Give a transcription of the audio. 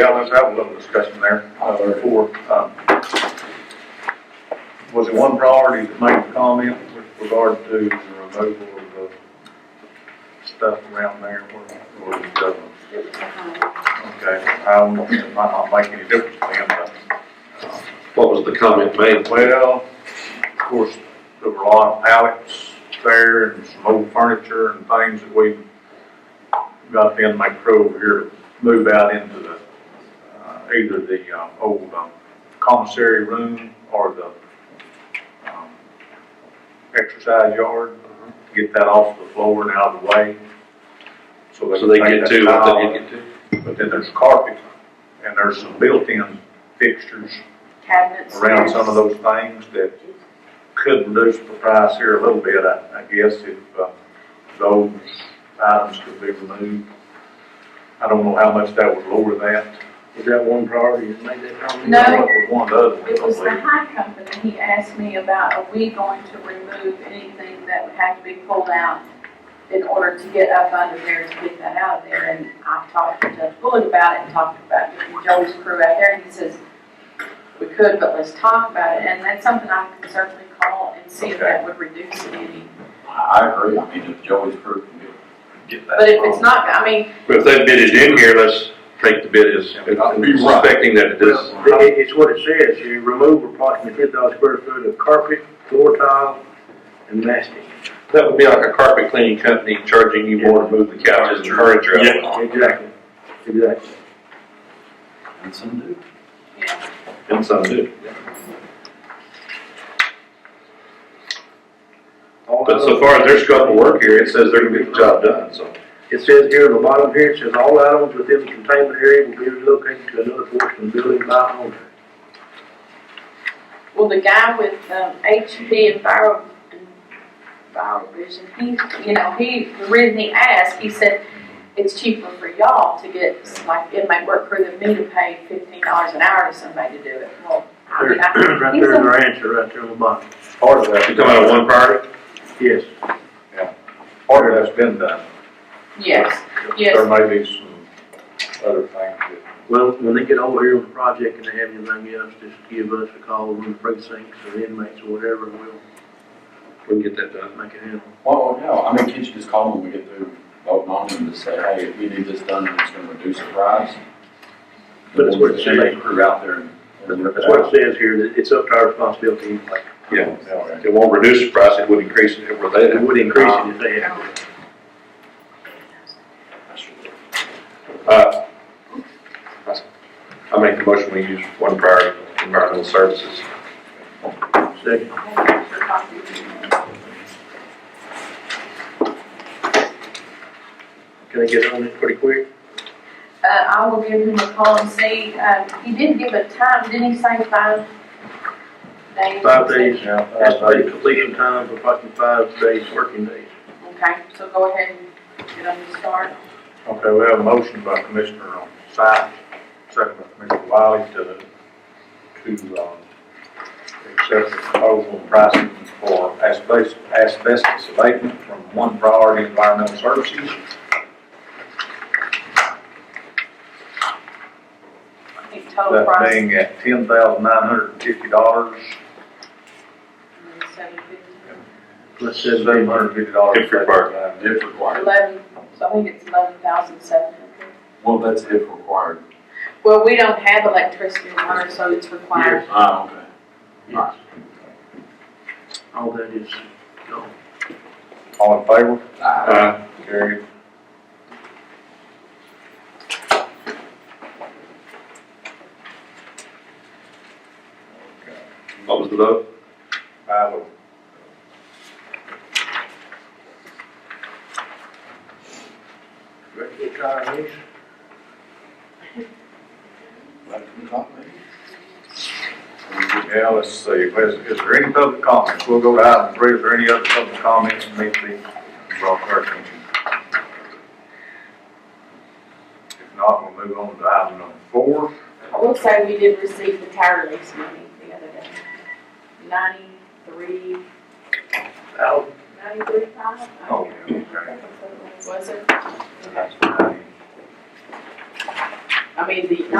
let's have a little discussion there, uh, before, um, was it one priority to make a comment with regard to the removal of the stuff around there, or, or it doesn't? Okay, um, it might not make any difference to them, but, uh, What was the comment made? well, of course, there were a lot of pallets there and some old furniture and things that we got the inmate crew over here to move out into the, uh, either the, um, old um, commissary room or the, um, exercise yard, get that off the floor and out of the way. So they can take get that to what tile they didn't get to? but then there's carpet, and there's some built-in fixtures Cabinets. around some of those things that could reduce the price here a little bit, I, I guess, if, uh, those items could be removed. I don't know how much that would lower that. Is that one priority, you made that comment? No. Or One of It was the them, high company, he asked me about, are we going to remove anything that would have to be pulled out in order to get up under there to get that out of there, and I talked to Judge Bullock about it, and talked about getting Joey's crew out there, and he says, we could, but let's talk about it, and that's something I can certainly call and see if that would reduce it any. I agree, I mean, if Joey's group can get- get that. But if it's not, I mean, But if that bid is in here, let's take the bid as, suspecting that it is. Well, it- It's what it says, you remove approximately ten thousand square foot of carpet, floor tile, and mastic. That would be like a carpet cleaning company charging you more to move the couches and furniture out. Exactly, exactly. And some do. you know, And some do. All But so items- far as they're scope of work here, it says they're gonna get the job done, so. It says here in the bottom here, it says all items within the containment area will be relocated to another portion of the building by owner. Well, the guy with um, HP and viral, and viral vision, he, you know, he, the reason he asked, he said, it's cheaper for y'all to get, like, it might work for than me to pay fifteen dollars an hour to somebody to do it. Well, I mean, I, Right there in their answer, right there on the bottom. part of that, You come out of one priority? Yes. part of that's been done. yes, There yes, may be some other things that Well, when they get over here on the project and they have anything else, just give us a call, we're in precincts or inmates or whatever, and we'll We can get that done. make it happen. Well, yeah, Oh, I mean, can't you just call them when we get through voting on them to say, hey, we need this done, and it's gonna reduce the price? But it's what it says. They Crew out there and. and rip it That's what out. it says here, that it's up to our responsibility anyway. Yeah. It won't reduce the price, it would increase it if we're It there. would increase it if they had. to. Uh, I make the motion, we use one priority, environmental services. Second, can I get on it pretty quick? uh, I will give him a call and see, um, he did give a time, didn't he say five days? Five days, Yeah, that's the completion time for fucking five days, working days. Okay, so go ahead and get on the start. Okay, we have a motion by Commissioner on site, second by Commissioner Wiley to, to, um, accept the proposal and pricing for asbestos, asbestos abatement from One Priority Environmental Services. I think total That Oh, price. being at ten thousand nine hundred and fifty dollars, Seven fifty. Let's say they seven hundred and fifty dollars. If required. If required, Eleven, so I think it's eleven thousand seven hundred. well, that's if required. Well, we don't have electricity and water, so it's required. Ah, okay. Yes. All that is, no. All in favor? Ah, Uh, Carried. what was the vote? I will. Ready to try these? that can talk, maybe? Yeah, let's see, is, is there any public comments? We'll go to item three, is there any other public comments that need to be brought to our attention? If not, we'll move on to item number four. I will say we did receive the tire lease money the other day. Ninety-three, Al, ninety-three five? Oh, yeah, okay. Was it? And that's what I need. I mean, the,